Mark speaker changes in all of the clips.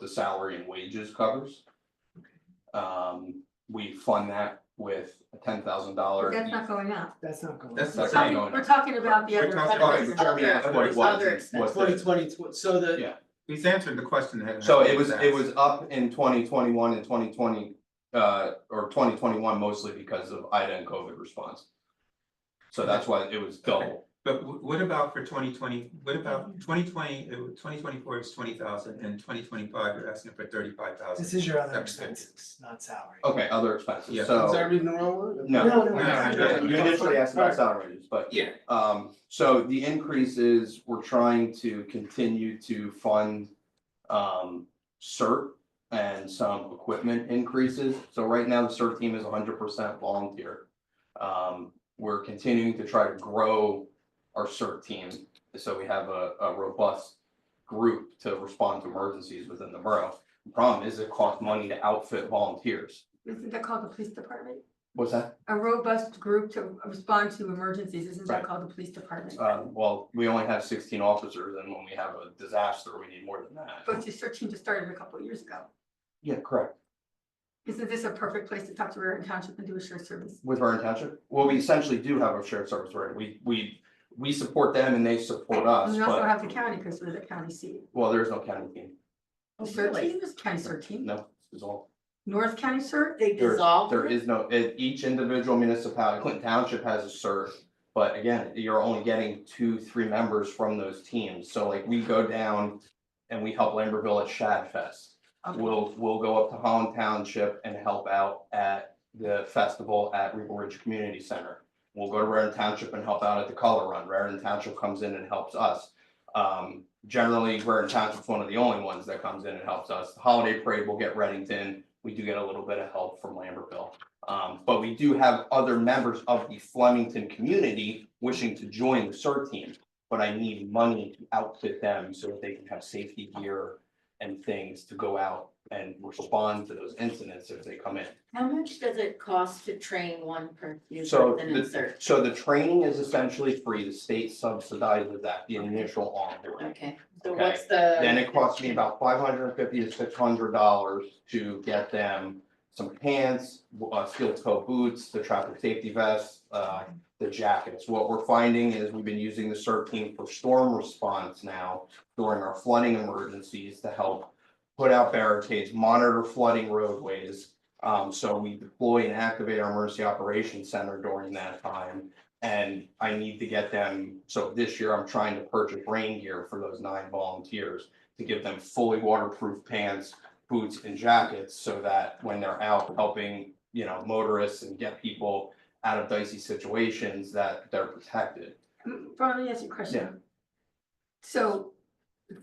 Speaker 1: the salary and wages covers. Um, we fund that with a ten thousand dollar.
Speaker 2: That's not going up.
Speaker 3: That's not going.
Speaker 4: That's
Speaker 1: That's not
Speaker 4: not going.
Speaker 1: going
Speaker 2: We're
Speaker 1: up.
Speaker 2: talking about the
Speaker 4: We're
Speaker 2: other. part
Speaker 4: talking-
Speaker 1: Sorry,
Speaker 2: of this.
Speaker 1: Oh, Jeremy asked what it was and what the-
Speaker 3: Twenty twenty, so the.
Speaker 1: Yeah.
Speaker 4: He's answered the question. that-
Speaker 1: So it was,
Speaker 4: that
Speaker 1: it was up in twenty twenty-one and twenty twenty, uh, or twenty twenty-one mostly because of Ida and COVID response. So that's why it was double.
Speaker 4: But wh- what about for twenty twenty, what about twenty twenty, twenty twenty four is twenty thousand and twenty twenty five, you're asking for thirty five thousand.
Speaker 3: This is your other expenses, Oh, not salary.
Speaker 1: Okay, other expenses,
Speaker 4: Yeah.
Speaker 5: Is that
Speaker 1: so,
Speaker 5: reading the wrong word?
Speaker 1: no.
Speaker 3: No, no,
Speaker 4: No,
Speaker 3: no,
Speaker 4: no,
Speaker 3: no.
Speaker 1: You initially asked
Speaker 5: Alright.
Speaker 1: about salaries, but,
Speaker 5: Yeah,
Speaker 1: um, so the increase is, we're trying to continue to fund. Um, CERT and some equipment increases, so right now the CERT team is hundred percent volunteer. Um, we're continuing to try to grow our CERT team, so we have a, a robust group to respond to emergencies within the borough. The Problem is, it costs money to outfit volunteers.
Speaker 2: Isn't that called the police department?
Speaker 1: What's that?
Speaker 2: A robust group to respond to emergencies, isn't that
Speaker 1: Right.
Speaker 2: called the police department?
Speaker 1: Uh, well, we only have sixteen officers and when we have a disaster, we need more than that.
Speaker 2: But your search team just started a couple of years ago.
Speaker 1: Yeah, correct.
Speaker 2: Isn't this a perfect place to talk to Raritan Township and do a shared service?
Speaker 1: With Vernon Township, well, we essentially do have a shared service, right? We, we, we support them and they support
Speaker 2: And
Speaker 1: us,
Speaker 2: we also
Speaker 1: but,
Speaker 2: have the county, because we're the county seat.
Speaker 1: well, there's no county team.
Speaker 2: The CERT team is county CERT team,
Speaker 1: Oh, No, it's all,
Speaker 2: North County CERT,
Speaker 6: They
Speaker 1: there,
Speaker 6: dissolved
Speaker 1: there
Speaker 6: it?
Speaker 1: is no, it, each individual municipality, Clinton Township has a CERT. But again, you're only getting two, three members from those teams. So like we go down and we help Lambertville at Shad Fest.
Speaker 2: Okay.
Speaker 1: We'll, we'll go up to Holland Township and help out at the festival at River Ridge Community Center. We'll go to Raritan Township and help out at the Color Run. Raritan Township comes in and helps us. Um, generally, Raritan Township's one of the only ones that comes in and helps us. The Holiday Parade, we'll get Reddington. We do get a little bit of help from Lambertville. Um, but we do have other members of the Flemington community wishing to join the CERT team. But I need money to outfit them so that they can have safety gear and things to go out and respond to those incidents if they come in.
Speaker 6: How much does it cost to train one per user
Speaker 1: So
Speaker 6: with an
Speaker 1: the-
Speaker 6: insert?
Speaker 1: So the training is essentially free, the state subsidizes that, the initial onboarding.
Speaker 6: Okay, so
Speaker 1: Okay.
Speaker 6: what's the?
Speaker 1: Then it costs me about five hundred and fifty to six hundred dollars to get them some pants, uh, steel toe boots, the traffic safety vests, uh, the jackets. What we're finding is we've been using the CERT team for storm response now during our flooding emergencies to help put out barricades, monitor flooding roadways. Um, so we deploy and activate our emergency operations center during that time. And I need to get them, so this year I'm trying to purchase rain gear for those nine volunteers to give them fully waterproof pants, boots and jackets so that when they're out helping, you know, motorists and get people out of dicey situations that they're protected.
Speaker 2: Um, Brian, let me ask you a question. So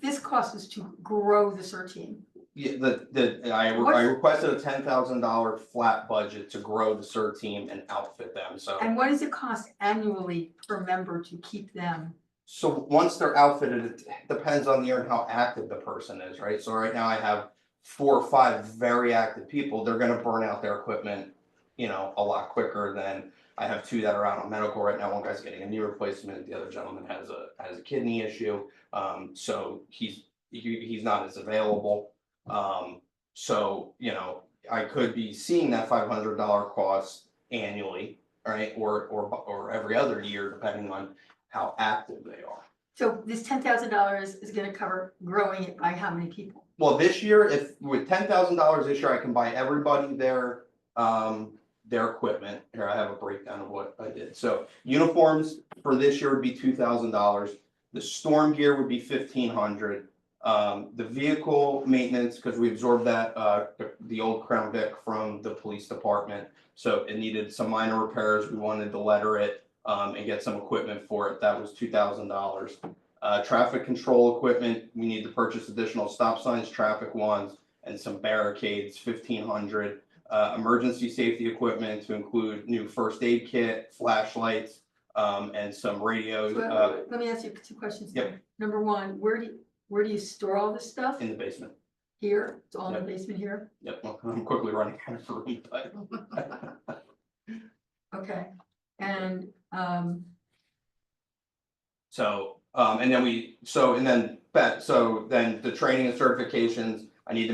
Speaker 2: this cost us to grow the CERT team.
Speaker 1: Yeah, the, the, I, re- I
Speaker 2: What's-
Speaker 1: requested a ten thousand dollar flat budget to grow the CERT team and outfit them, so.
Speaker 2: And what does it cost annually per member to keep them?
Speaker 1: So once they're outfitted, it depends on the year and how active the person is, right? So right now I have four or five very active people, they're gonna burn out their equipment, you know, a lot quicker than I have two that are out on medical right now, one guy's getting a knee replacement, the other gentleman has a, has a kidney issue. Um, so he's, he, he's not as available. Um, so, you know, I could be seeing that five hundred dollar cost annually, right? Or, or, or every other year, depending on how active they are.
Speaker 2: So this ten thousand dollars is gonna cover growing it by how many people?
Speaker 1: Well, this year, if with ten thousand dollars this year, I can buy everybody their um their equipment. Here, I have a breakdown of what I did. So uniforms for this year would be two thousand dollars. The storm gear would be fifteen hundred. Um, the vehicle maintenance, because we absorbed that uh the- the old Crown Vic from the police department. So it needed some minor repairs. We wanted to letter it um and get some equipment for it. That was two thousand dollars. Uh, traffic control equipment, we need to purchase additional stop signs, traffic ones, and some barricades, fifteen hundred. Uh, emergency safety equipment to include new first aid kit, flashlights, um, and some radios,
Speaker 2: So,
Speaker 1: uh,
Speaker 2: Let me ask you two questions.
Speaker 1: yep.
Speaker 2: there. Number one, where do, you where do you store all this stuff?
Speaker 1: in the basement.
Speaker 2: Here, it's all in the basement here?
Speaker 1: Yep, well, I'm quickly running out of room, but.
Speaker 2: Okay, and, um,
Speaker 1: So, um, and then we, so, and then, but, so then the training and certifications, I need to